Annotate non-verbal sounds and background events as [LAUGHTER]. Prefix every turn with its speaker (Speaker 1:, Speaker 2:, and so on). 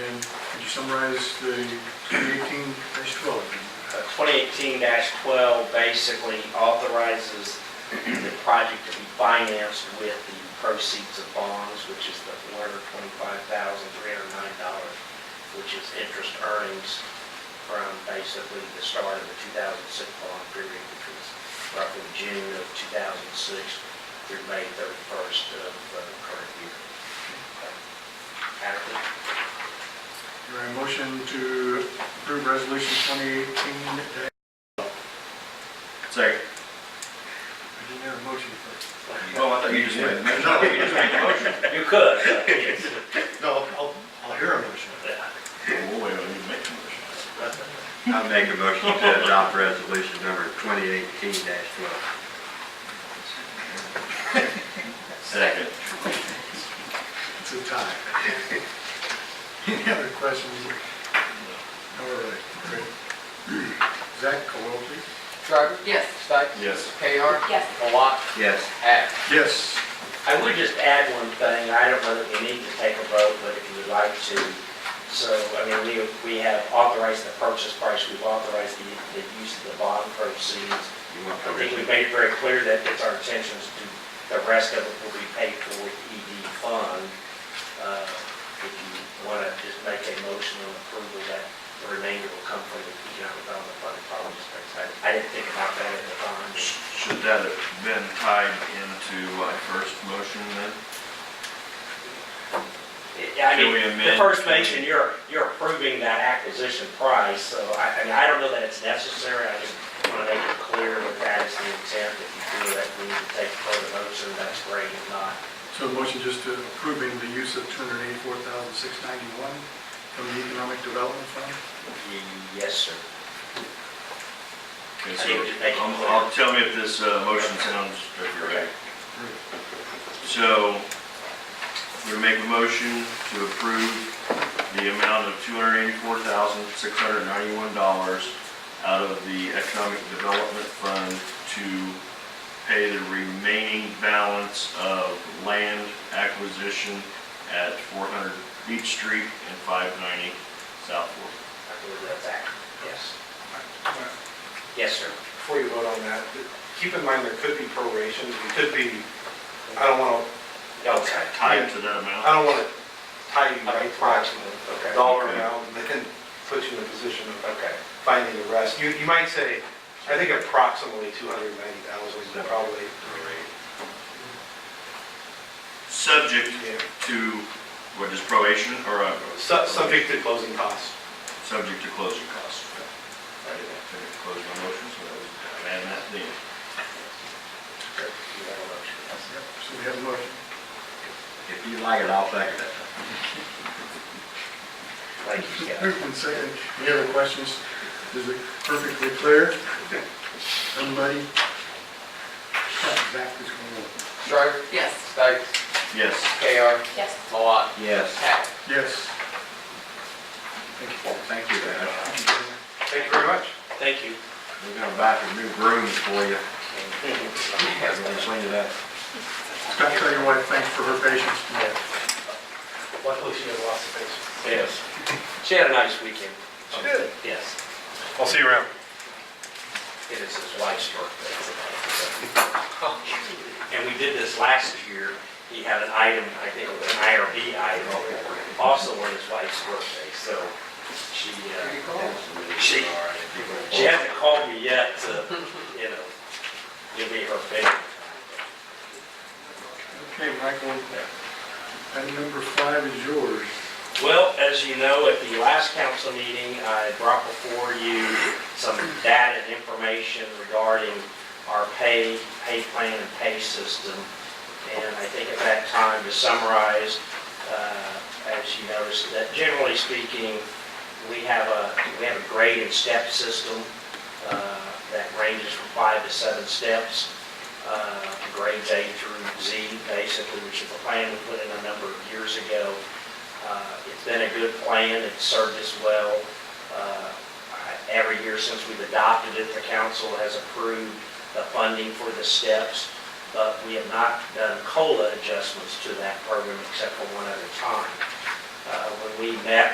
Speaker 1: summarize the 2018-12.
Speaker 2: 2018-12 basically authorizes the project to be financed with the proceeds of bonds, which is the $425,309, which is interest earnings from basically the start of the 2006 bond period, which was roughly June of 2006 through May 31st of uh, the current year. Adequate.
Speaker 1: Your motion to approve resolution 2018. day-
Speaker 3: Second.
Speaker 1: I didn't have a motion for
Speaker 3: Oh, I thought you just made, no, you just made the motion.
Speaker 2: You could. uh, yes.
Speaker 1: it. No, I'll, I'll hear a motion.
Speaker 3: Oh, wait, I need to make the motion.
Speaker 4: I make a motion to adopt resolution number 2018-12.
Speaker 3: Second.
Speaker 1: It's a tie. [LAUGHS] Any other questions? All right, great. Zach, call roll, please.
Speaker 5: Shriver? Yes. Stikes?
Speaker 3: Yes.
Speaker 5: KR?
Speaker 6: Yes.
Speaker 5: Malat?
Speaker 4: Yes.
Speaker 5: Act.
Speaker 1: Yes.
Speaker 2: I would just add one thing, I don't know that we need to take a vote, but if you would like to, so, I mean, we, we have authorized the purchase price, we've authorized the, the use of the bond proceeds.
Speaker 4: You want
Speaker 2: I think we
Speaker 4: permission?
Speaker 2: made it very clear that it's our intentions to, the rest of it will be paid for with ED fund. Uh, If you want to just make a motion on approval that the remainder will come from the economic development fund, apologies, I I didn't think about that at the time.
Speaker 3: Should that have been tied into my first motion then?
Speaker 2: I mean,
Speaker 3: Can we
Speaker 2: the
Speaker 3: amend-
Speaker 2: first mention, you're, you're approving that acquisition price, so I, I mean, I don't know that it's necessary, I just want to make it clear that that is the intent, if you feel that we need to take further motion, that's great, if not,
Speaker 1: So the motion just to approving the use of 284,691 from the Economic Development Fund?
Speaker 2: y- yes, sir. I
Speaker 3: Okay,
Speaker 2: think we should make it
Speaker 3: so, um,
Speaker 2: clear.
Speaker 3: I'll, tell me if this, uh, motion sounds, if you're right. So, we make a motion to approve the amount of two hundred eighty-four thousand, six hundred ninety-one dollars out of the Economic Development Fund to pay the remaining balance of land acquisition at four hundred Beach Street and five ninety South Fork.
Speaker 2: I believe that's accurate, yes.
Speaker 7: Before
Speaker 2: Yes, sir.
Speaker 7: you vote on that, keep in mind there could be prorations, it could be, I don't want to,
Speaker 2: Okay.
Speaker 3: Tied to that amount?
Speaker 7: I don't want to tie you right to a
Speaker 2: Okay.
Speaker 7: dollar amount and then put you in a position of
Speaker 2: Okay.
Speaker 7: finding the rest. You, you might say, I think approximately 290,000 is probably the rate.
Speaker 3: Subject
Speaker 7: Yeah.
Speaker 3: to, what is probation or? uh,
Speaker 7: Su- Subject to closing costs.
Speaker 3: Subject to closing costs. I didn't have to close my motion, so I was adding that then.
Speaker 2: You have a motion, yes.
Speaker 1: Yep, so we have a motion.
Speaker 4: If you like it, I'll second it.
Speaker 2: Thank you, Scott.
Speaker 1: Moved and second. Any other questions? Is it perfectly clear? Somebody? Zach is going to
Speaker 5: Shriver? Yes. Stikes?
Speaker 3: Yes.
Speaker 5: KR?
Speaker 6: Yes.
Speaker 5: Malat?
Speaker 4: Yes.
Speaker 5: Act.
Speaker 1: Yes.
Speaker 4: Thank you, Dad.
Speaker 7: Thank you very much.
Speaker 2: Thank you.
Speaker 4: We're gonna buy some new brooms for you. I'm gonna clean it up.
Speaker 1: Scott, tell your wife thanks for her patience today.
Speaker 7: Luckily, she has lots of patience.
Speaker 2: Yes. She had a nice weekend.
Speaker 7: She did.
Speaker 2: Yes.
Speaker 7: I'll see you around.
Speaker 2: It is his wife's birthday. And we did this last year. He had an item, I think it was an IRB item, also on his wife's birthday, so she, uh, she, she hasn't called me yet to, you know, give me her favor.
Speaker 1: Okay, Michael, item number five is yours.
Speaker 2: Well, as you know, at the last council meeting, I brought before you some data and information regarding our pay, pay plan and pay system. And I think at that time, to summarize, uh, as you noticed, that generally speaking, we have a, we have a grade and step system uh, that ranges from five to seven steps uh, grades A through Z, basically, which is a plan we put in a number of years ago. Uh, It's been a good plan, it's served us well. Uh, I- Every year since we've adopted it, the council has approved the funding for the steps, but we have not done COLA adjustments to that program except for one other time. Uh, When we met